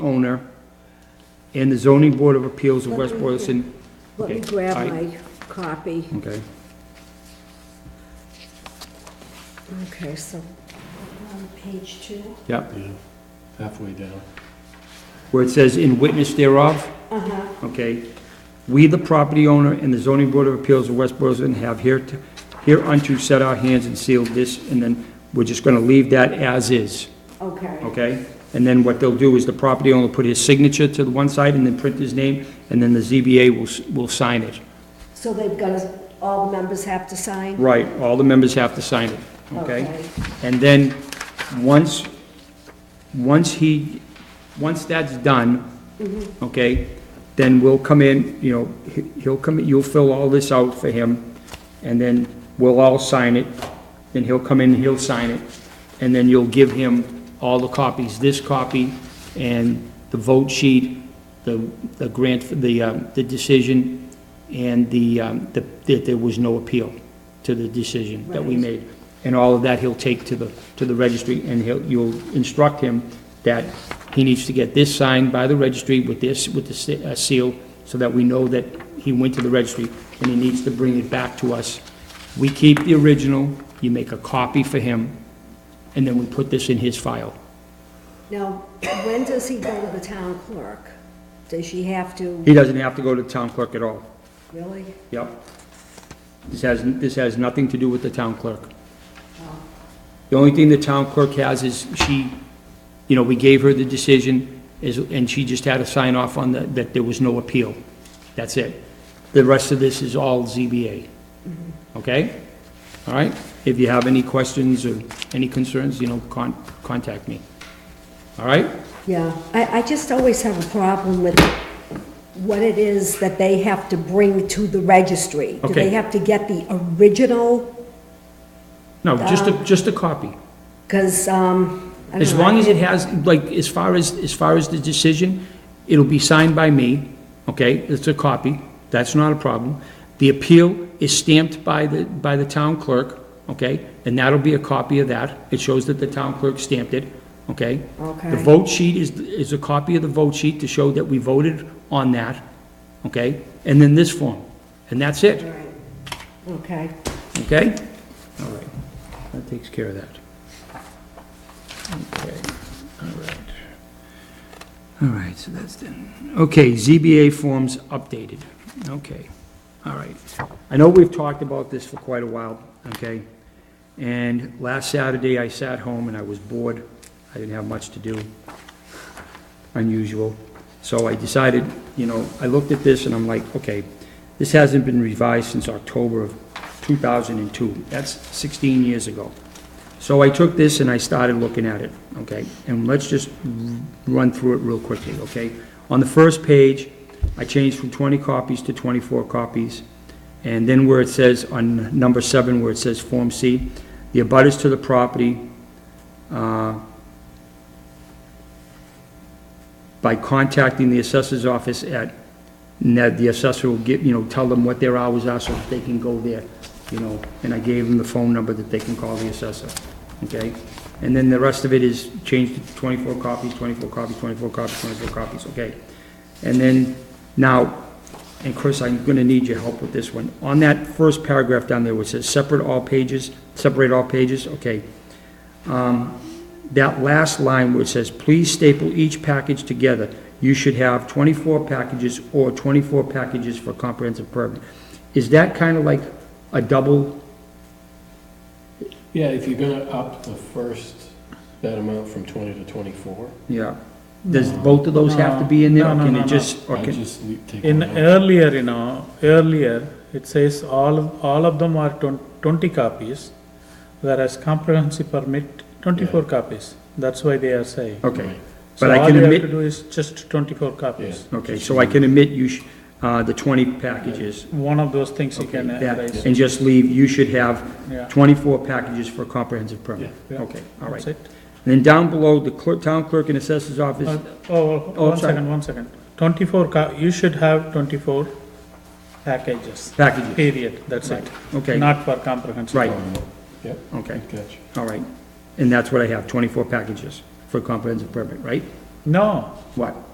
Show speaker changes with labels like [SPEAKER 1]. [SPEAKER 1] owner and the zoning board of appeals of West Boylston.
[SPEAKER 2] Let me
[SPEAKER 1] Okay,
[SPEAKER 2] grab
[SPEAKER 1] I-
[SPEAKER 2] my copy.
[SPEAKER 1] Okay,
[SPEAKER 2] Okay, so on page two.
[SPEAKER 1] yeah,
[SPEAKER 3] Yeah, halfway down.
[SPEAKER 1] where it says in witness thereof,
[SPEAKER 2] Uh-huh.
[SPEAKER 1] okay? We, the property owner and the zoning board of appeals of West Boylston have here, hereunto set our hands and sealed this, and then we're just gonna leave that as is,
[SPEAKER 2] Okay,
[SPEAKER 1] okay? And then what they'll do is the property owner will put his signature to the one side and then print his name, and then the ZBA will, s- will sign it.
[SPEAKER 2] so they've got, to- all the members have to sign?
[SPEAKER 1] Right, all the members have to sign it, okay? And then, once, once he, once that's done, okay, then we'll come in, you know, he- he'll come, you'll fill all this out for him, and then we'll all sign it, then he'll come in, and he'll sign it, and then you'll give him all the copies, this copy, and the vote sheet, the, the grant, the, um, the decision, and the, um, the- that there was no appeal to the decision that we
[SPEAKER 2] Right.
[SPEAKER 1] made. And all of that he'll take to the, to the registry, and he'll, you'll instruct him that he needs to get this signed by the registry with this, with the se- uh, seal, so that we know that he went to the registry, and he needs to bring it back to us. We keep the original, you make a copy for him, and then we put this in his file.
[SPEAKER 2] Now, when does he go to the town clerk? Does she have to,
[SPEAKER 1] He doesn't have to go to the town clerk at all.
[SPEAKER 2] really?
[SPEAKER 1] Yep. This has, this has nothing to do with the town clerk. The only thing the town clerk has is she, you know, we gave her the decision, is, and she just had to sign off on that, that there was no appeal. That's it. The rest of this is all ZBA. Okay? All right? If you have any questions or any concerns, you know, con, contact me. All right?
[SPEAKER 2] Yeah, I, I just always have a problem with what it is that they have to bring to the registry. Do
[SPEAKER 1] Okay.
[SPEAKER 2] they have to get the original?
[SPEAKER 1] No, just a, just a copy.
[SPEAKER 2] Because, um, I don't know.
[SPEAKER 1] As long as it has, like, as far as, as far as the decision, it'll be signed by me, okay? It's a copy, that's not a problem. The appeal is stamped by the, by the town clerk, okay? And that'll be a copy of that. It shows that the town clerk stamped it, okay? The
[SPEAKER 2] Okay.
[SPEAKER 1] vote sheet is, is a copy of the vote sheet to show that we voted on that, okay? And then this form, and that's it,
[SPEAKER 2] Right. Okay.
[SPEAKER 1] okay? All right, that takes care of that. Okay. All right, so that's done. Okay, ZBA forms updated. Okay, all right. I know we've talked about this for quite a while, okay? And last Saturday, I sat home and I was bored. I didn't have much to do, unusual. So I decided, you know, I looked at this and I'm like, okay, this hasn't been revised since October of 2002. That's 16 years ago. So I took this and I started looking at it, okay? And let's just run through it real quickly, okay? On the first page, I changed from 20 copies to 24 copies. And then where it says, on number seven, where it says Form C, the abutters to the property uh, by contacting the assessor's office at, and that the assessor will get, you know, tell them what their hours are so that they can go there, you know, and I gave them the phone number that they can call the assessor, okay? And then the rest of it is changed to 24 copies, 24 copies, 24 copies, 24 copies, okay? And then, now, and Chris, I'm gonna need your help with this one. On that first paragraph down there, which says separate all pages, separate all pages, okay? that last line where it says, please staple each package together, you should have 24 packages or 24 packages for comprehensive permit. Is that kind of like a double,
[SPEAKER 3] Yeah, if you're gonna up the first, that amount from twenty to twenty-four.
[SPEAKER 1] yeah? Does both of those have to be in there? or
[SPEAKER 4] No, no,
[SPEAKER 1] Can
[SPEAKER 4] no,
[SPEAKER 1] it
[SPEAKER 4] no.
[SPEAKER 1] just, or
[SPEAKER 3] I
[SPEAKER 1] can,
[SPEAKER 3] just le- take.
[SPEAKER 4] In
[SPEAKER 3] one out.
[SPEAKER 4] earlier, you know, earlier, it says all, all of them are twen- twenty copies, whereas comprehensive permit, twenty-four copies. That's why they are saying.
[SPEAKER 1] okay.
[SPEAKER 3] Right.
[SPEAKER 4] So
[SPEAKER 1] But I
[SPEAKER 4] all
[SPEAKER 1] can
[SPEAKER 4] you have to
[SPEAKER 1] admit,
[SPEAKER 4] do is just twenty-four copies.
[SPEAKER 1] okay, so I can admit you, sh- uh, the 20 packages.
[SPEAKER 4] One of those things you can uh,
[SPEAKER 1] that-
[SPEAKER 4] erase.
[SPEAKER 1] And just leave, you should have
[SPEAKER 4] Yeah.
[SPEAKER 1] 24 packages for comprehensive permit.
[SPEAKER 4] Yeah.
[SPEAKER 1] Okay, all right.
[SPEAKER 4] That's it.
[SPEAKER 1] And then down below, the clerk, town clerk and assessors office.
[SPEAKER 4] Uh, Oh,
[SPEAKER 1] Oh,
[SPEAKER 4] one
[SPEAKER 1] sorry.
[SPEAKER 4] second, one second. Twenty-four co, you should have twenty-four packages.
[SPEAKER 1] Packages.
[SPEAKER 4] Period, that's it.
[SPEAKER 1] Okay.
[SPEAKER 4] Not for comprehensive.
[SPEAKER 1] Right.
[SPEAKER 3] Yep,
[SPEAKER 1] Okay.
[SPEAKER 3] catch.
[SPEAKER 1] All right, and that's what I have, 24 packages for comprehensive permit, right?
[SPEAKER 5] No,
[SPEAKER 4] What?